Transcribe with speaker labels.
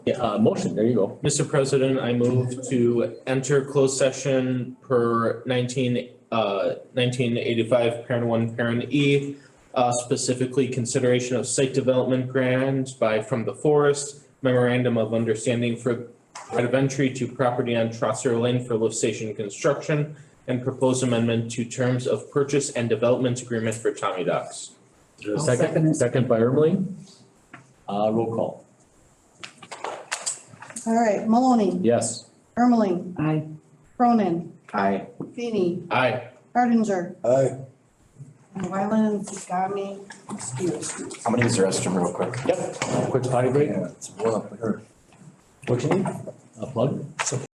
Speaker 1: Yeah, uh, motion, there you go.
Speaker 2: Mr. President, I move to enter closed session per nineteen, uh, nineteen eighty-five, parent one, parent E. Uh, specifically consideration of site development grants by From the Forest memorandum of understanding for right of entry to property on Trosser Lane for lift station construction and proposed amendment to terms of purchase and development agreement for Tommy Docks.
Speaker 1: Is there a
Speaker 3: I'll second it.
Speaker 1: Second by Ermeling. Uh, roll call,
Speaker 4: All right, Maloney,
Speaker 1: yes.
Speaker 4: Ermeling,
Speaker 3: Aye.
Speaker 4: Cronin,
Speaker 1: Aye.
Speaker 4: Feeny,
Speaker 2: Aye.
Speaker 4: Hardinger,
Speaker 5: Aye.
Speaker 4: and Wyland and Zagami, excuse.
Speaker 6: I'm gonna use the restroom real quick.
Speaker 1: Yep, quick potty break,
Speaker 5: Yeah, it's one up there.
Speaker 1: what you need? A plug?